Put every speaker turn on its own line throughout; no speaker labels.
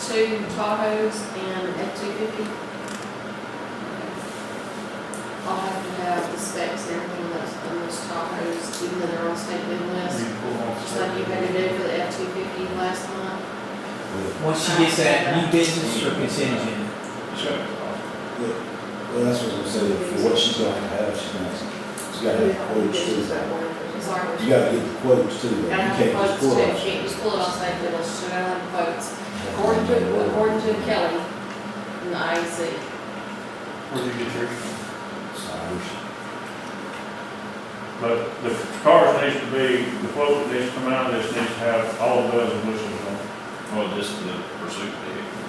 two Tahoes and an F-250. I'll have to have the specs and everything on those, on those Tahoes, even though they're on state bid list. Just like you had to do for the F-250 last month.
Once she gets that new business or contingent,
Well, that's what I was gonna say, for what she's gonna have, she's gonna, she's gotta have quotes too.
I'm sorry.
You gotta get the quotes too, though. you
Gotta
can't
have
just
quotes
pull
too,
it.
can't just pull it off state bid list, so gotta have quotes. According to, according to Kelly in the IEC.
Where do you get yours?
Sorry.
But the cars needs to be, the quote that needs to come out, of this needs to have all bells and whistles on. it.
Well, just the pursuit vehicle,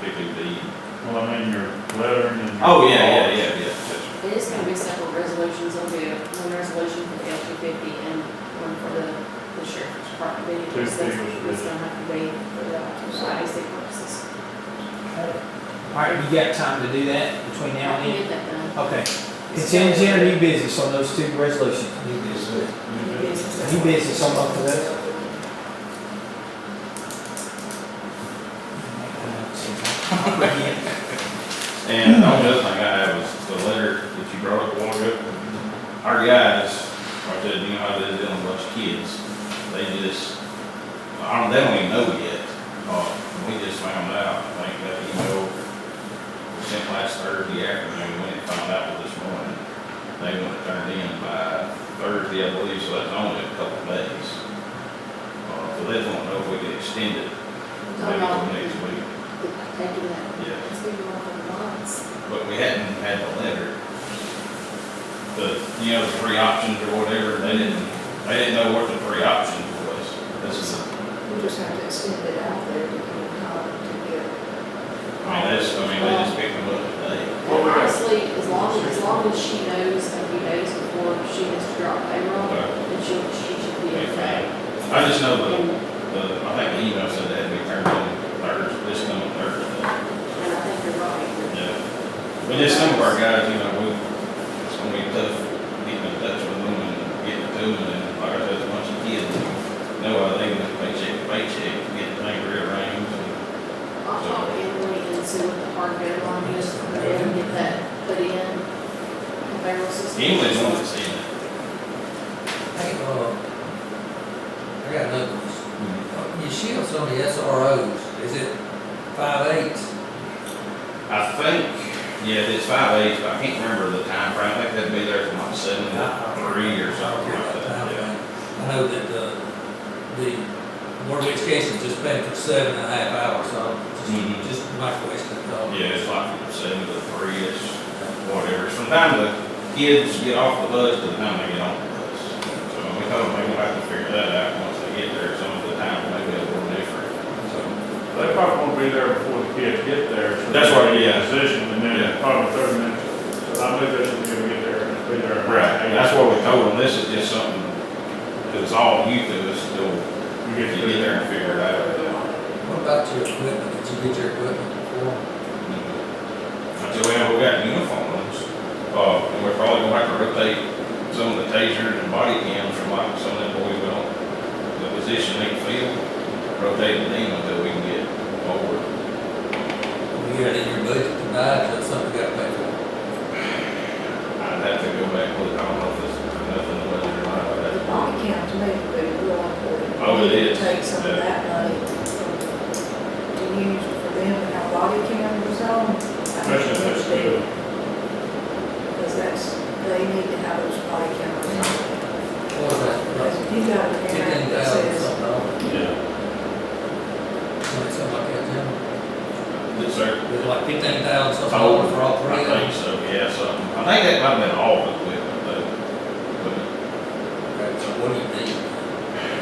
PPV.
Well, I mean, your lettering and. your-
Oh, yeah, yeah, yeah, yeah, yes.
It is gonna be separate resolutions, there'll be one resolution for the F two fifty and one for the, the sheriff's department
Two
vehicles. That's,
vehicles,
that's gonna have to be for the, for IC purposes.
alright, you got time to do that between
I
now and
can
then?
get that done.
Okay, contingent or new business on those two resolutions? New business. New business on both of those?
And the only other thing I had was the letter that you brought up a while ago. Our guys, like I said, you know how they deal with a bunch of kids, they just, I don't, they don't even know yet. Uh, we just found out, I think that email was sent last Thursday afternoon, we didn't find out till this morning. They want it turned in by Thursday, I believe, so that's only a couple of days. Uh, so they don't know if we can extend it, maybe till next week,
Taking that,
yeah.
it's gonna be one for the months.
But we hadn't had the letter. The, you know, the three options or whatever, they didn't, they didn't know what the three options was. This is,
We just have to extend it out there to get caught together.
I mean, that's, I mean, they just picked them up today.
Well, we got-
Honestly, as long, as long as she knows a few days before she has to drop payroll,
Okay.
then she'll, she should be okay.
I just know the, the, I think the email said that we turned in Thursday, this coming Thursday.
And I think you're right.
Yeah. But just some of our guys, you know, we, it's gonna be tough getting in touch with them and getting to them and like I said, it's a bunch of kids. No, I think it's paycheck, to paycheck, getting things rearranged and
I'll talk to Emily and see what the hard deadline is, and then get that put in. The payroll system.
English wants to see it.
Hey, uh, I got another question. Uh, Your shields on the SROs, is it five eighths?
I think, yeah, it's five eights, but I can't remember the time frame. I think that'd be there from like seven to three or something like that, yeah.
I know that, uh, the Board of Education's just been for seven and a half hours, so
Mhm.
just, just my question, uh,
Yeah, it's like from seven to three, it's whatever. Sometimes the kids get off the bus to the time they get on the bus. So we hope they will have to figure that out once they get there. Some of the time may be a little different, so.
They probably won't be there before the kids get there. so
That's
they'll
right,
be in
yeah.
Position, and
Yeah.
then probably thirty minutes, so I believe that's when they'll get there, and be there.
And that's what we told them, this is just something, cause it's all new to us, still,
You
get
get to
there and figure it out.
what about your equipment, did you get your equipment before?
Until we have, we got uniform ones, uh, and we're probably gonna have to rotate some of the tasers and body cams from like some of them boys we don't, the position they feel, rotate them until we can get over.
You had in your budget to buy, that's something you gotta pay for.
I'd have to go back with, I don't know if it's nothing to budget or not, but
The
that's.
body count to me would be real important.
Oh, it is.
Take some of that money to use for them and have body cameras on. I
Especially if it's good.
Because that's, they need to have those body cameras on.
What was
Because if
that,
you got a
fifteen
parent that
thousand
says,
something, dollars,
Yeah.
something like that, yeah?
Yes, sir.
It was like fifteen thousand something
Oh,
dollars for all three
I
of them?
think so, yeah, so, I think that might have been all the equipment, though. But
Okay, so what do you need?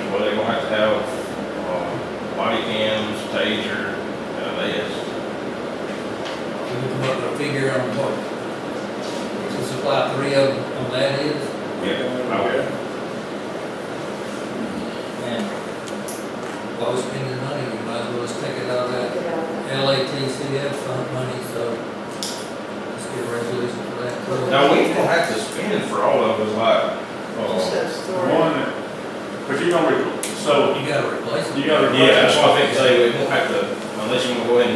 Well, they're gonna have to have, uh, body cams, taser, uh, this.
Can you come up with a figure on what, to supply three of them on that is?
Yeah. Okay.
And while we're spending money, we might as well just take it out of that
you know,
LATCF fund money, so let's get a resolution for that.
Now, we don't have to spend for all of us, like, uh,
just those three.
One, but you're gonna, re- so
You gotta replace it.
you gotta.
yeah, that's what I think, say, we don't have to, uh, unless you wanna go ahead and